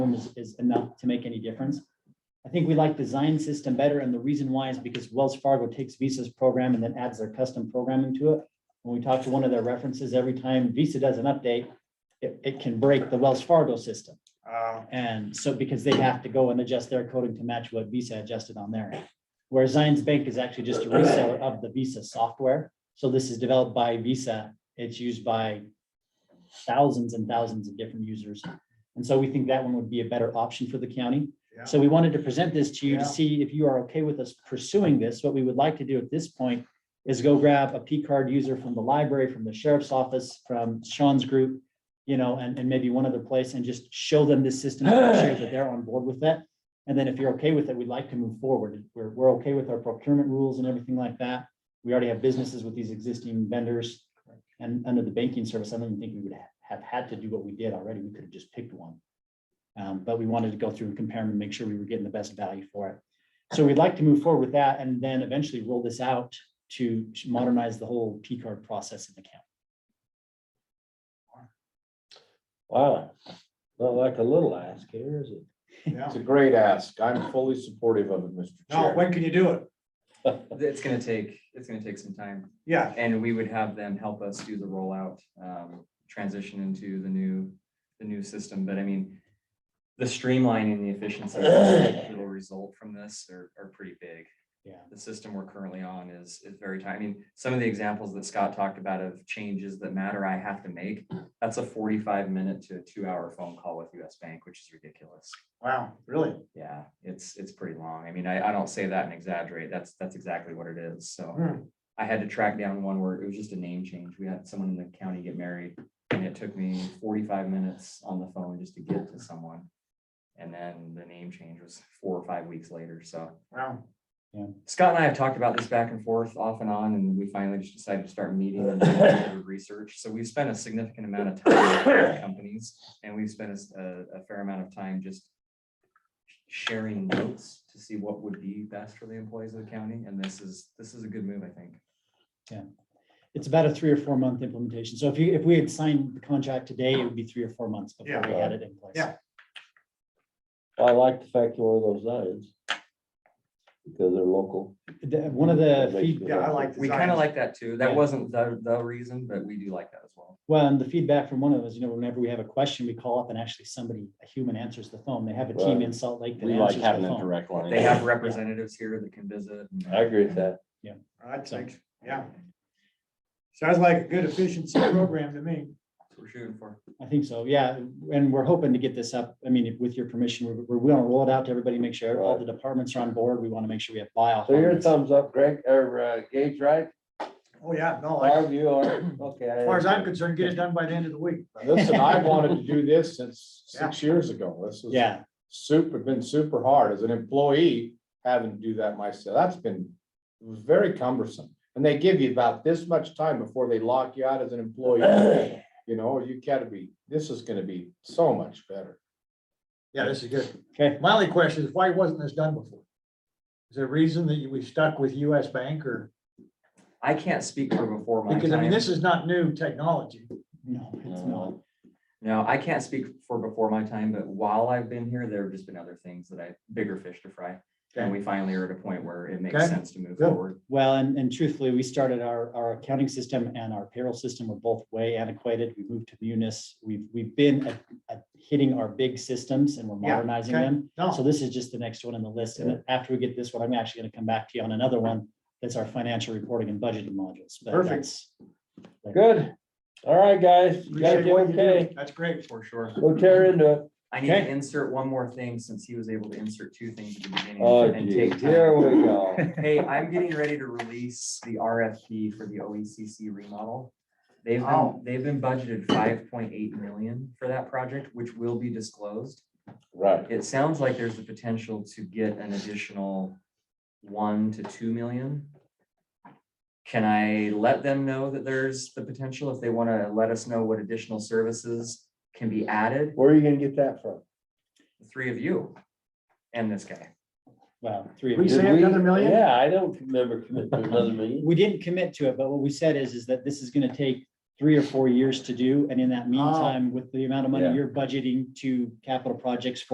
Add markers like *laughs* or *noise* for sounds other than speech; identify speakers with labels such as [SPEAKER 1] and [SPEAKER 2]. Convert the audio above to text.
[SPEAKER 1] room is, is enough to make any difference. I think we like the Zion system better, and the reason why is because Wells Fargo takes Visa's program and then adds their custom programming to it. When we talk to one of their references, every time Visa does an update, it, it can break the Wells Fargo system.
[SPEAKER 2] Uh,
[SPEAKER 1] And so because they have to go and adjust their coding to match what Visa adjusted on their end. Where Zions Bank is actually just a reseller of the Visa software. So this is developed by Visa. It's used by thousands and thousands of different users. And so we think that one would be a better option for the county.
[SPEAKER 2] yeah.
[SPEAKER 1] So we wanted to present this to you to
[SPEAKER 2] Yeah.
[SPEAKER 1] see if you are okay with us pursuing this. What we would like to do at this point is go grab a P card user from the library, from the sheriff's office, from Sean's group, you know, and, and maybe one other place and just show them this system, share that they're on board with that. And then if you're okay with it, we'd like to move forward. We're, we're okay with our procurement rules and everything like that. We already have businesses with these existing vendors. And under the banking service, I don't even think we would have had to do what we did already. We could have just picked one. Um, but we wanted to go through and compare them and make sure we were getting the best value for it. So we'd like to move forward with that and then eventually roll this out to modernize the whole P card process in the county.
[SPEAKER 3] Wow, not like a little ask here, is it? *laughs*
[SPEAKER 2] Yeah.
[SPEAKER 4] It's a great ask. I'm fully supportive of it, Mr.
[SPEAKER 2] No,
[SPEAKER 4] Chair.
[SPEAKER 2] when can you do it?
[SPEAKER 5] It's gonna take, it's gonna take some time,
[SPEAKER 2] Yeah,
[SPEAKER 5] and we would have them help us do the rollout, um, transition into the new, the new system, but I mean. The streamlining, and the efficiency that'll result from this are, are pretty big.
[SPEAKER 1] Yeah.
[SPEAKER 5] The system we're currently on is, is very tight. I mean, some of the examples that Scott talked about of changes that matter I have to make. That's a forty-five minute to a two-hour phone call with US Bank, which is ridiculous.
[SPEAKER 2] wow, really?
[SPEAKER 5] Yeah, it's, it's pretty long. I mean, I, I don't say that and exaggerate. That's, that's exactly what it is. So.
[SPEAKER 2] Hmm.
[SPEAKER 5] I had to track down one where it was just a name change. We had someone in the county get married and it took me forty-five minutes on the phone just to get to someone. And then the name change was four or five weeks later. So
[SPEAKER 2] Wow.
[SPEAKER 5] Scott and I have talked about this back and forth off and on, and we finally just decided to start meeting
[SPEAKER 6] *laughs*
[SPEAKER 5] and doing a little research. So we've spent a significant amount of
[SPEAKER 6] *coughs*
[SPEAKER 5] time with companies and we've spent a s- a, a fair amount of time just sharing notes to see what would be best for the employees of the county. And this is, this is a good move, I think.
[SPEAKER 1] It's about a three or four month implementation. So if you, if we had signed the contract today, it would be three or four months before we had it in place.
[SPEAKER 2] Yeah.
[SPEAKER 3] I like the fact you're one of those signs. Because they're local.
[SPEAKER 1] The- one of the, feed-
[SPEAKER 2] Yeah, I like uh,
[SPEAKER 5] We kind
[SPEAKER 2] designs.
[SPEAKER 5] of like that too. That
[SPEAKER 1] Yeah.
[SPEAKER 5] wasn't the, the reason, but we do like that as well.
[SPEAKER 1] well, and the feedback from one of us, you know, whenever we have a question, we call up and actually somebody, a human answers the phone. They have a team
[SPEAKER 3] Right.
[SPEAKER 1] in Salt Lake that
[SPEAKER 4] We like
[SPEAKER 1] answers
[SPEAKER 4] having
[SPEAKER 1] the
[SPEAKER 4] a
[SPEAKER 1] phone.
[SPEAKER 4] direct line.
[SPEAKER 5] They have representatives here that can visit. and-
[SPEAKER 3] I agree with that.
[SPEAKER 2] I
[SPEAKER 1] So-
[SPEAKER 2] think, yeah. Sounds like a good efficiency program to me.
[SPEAKER 5] That's what We're shooting for.
[SPEAKER 1] I think so, yeah. And we're hoping to get this up. I mean, if- with your permission, we're, we're going to roll it out to everybody, make sure all the departments are on board. We want to make sure we have buy-off.
[SPEAKER 3] So
[SPEAKER 1] on
[SPEAKER 3] you're a
[SPEAKER 1] this.
[SPEAKER 3] thumbs up, Greg, or uh, Gage, right?
[SPEAKER 2] Oh, yeah, no, like,
[SPEAKER 3] Barb, you are, okay.
[SPEAKER 2] as far as I'm concerned, get it done by the end of the week.
[SPEAKER 4] Listen, I wanted to do this since six years ago. This was
[SPEAKER 1] Yeah,
[SPEAKER 4] super, been super hard as an employee having to do that myself. That's been it was very cumbersome. And they give you about this much time before they lock you out as an employee.
[SPEAKER 2] *clears throat*
[SPEAKER 4] You know, you gotta be, this is gonna be so much better.
[SPEAKER 6] Yeah, this is good.
[SPEAKER 1] okay.
[SPEAKER 6] My only question is why wasn't this done before? Is there a reason that you- we stuck with US Bank or,
[SPEAKER 5] I can't speak for before my
[SPEAKER 6] because I mean,
[SPEAKER 5] time.
[SPEAKER 6] this is not new technology.
[SPEAKER 1] No, it's not.
[SPEAKER 3] No.
[SPEAKER 5] No, I can't speak for before my time, but while I've been here, there have just been other things that I, bigger fish to fry. And
[SPEAKER 6] Okay.
[SPEAKER 5] we finally are at a point where it makes
[SPEAKER 6] Okay.
[SPEAKER 5] sense to move
[SPEAKER 6] Good.
[SPEAKER 5] forward.
[SPEAKER 1] Well, and, and truthfully, we started our, our accounting system and our payroll system were both way antiquated. We moved to Munis. We've, we've been at- at hitting our big systems and we're
[SPEAKER 2] Yeah,
[SPEAKER 1] modernizing
[SPEAKER 2] okay.
[SPEAKER 1] them. So
[SPEAKER 2] No,
[SPEAKER 1] this is just the next one in the list. And then after we get this one, I'm actually going to come back to you on another one. That's our financial reporting and budgeting modules. But
[SPEAKER 2] Perfect.
[SPEAKER 1] that's-
[SPEAKER 3] Good. All right, guys, you guys
[SPEAKER 2] appreciate what you do.
[SPEAKER 3] okay?
[SPEAKER 2] That's great.
[SPEAKER 5] For sure.
[SPEAKER 3] Go tear into it.
[SPEAKER 5] I need to
[SPEAKER 1] Okay.
[SPEAKER 5] insert one more thing since he was able to insert two things at the beginning
[SPEAKER 3] Oh,
[SPEAKER 5] and
[SPEAKER 3] geez,
[SPEAKER 5] take
[SPEAKER 3] here
[SPEAKER 5] time.
[SPEAKER 3] we
[SPEAKER 2] *laughs*
[SPEAKER 3] go.
[SPEAKER 5] Hey, I'm getting ready to release the RFP for the OECC remodel. They've been,
[SPEAKER 2] Oh.
[SPEAKER 5] they've been budgeted five point eight million for that project, which will be disclosed.
[SPEAKER 3] Right,
[SPEAKER 5] It sounds like there's the potential to get an additional one to two million. Can I let them know that there's the potential if they want to let us know what additional services can be added?
[SPEAKER 3] where are you gonna get that from?
[SPEAKER 5] The Three of you and this guy.
[SPEAKER 1] Well, three of
[SPEAKER 2] We
[SPEAKER 1] you.
[SPEAKER 3] Did
[SPEAKER 2] say
[SPEAKER 3] we-
[SPEAKER 2] another million?
[SPEAKER 3] Yeah, I don't
[SPEAKER 2] *laughs*
[SPEAKER 3] remember committing to another million.
[SPEAKER 1] We didn't commit to it, but what we said is, is that this is gonna take three or four years to do, and in that meantime, with the amount of money
[SPEAKER 3] Yeah.
[SPEAKER 1] you're budgeting to capital projects for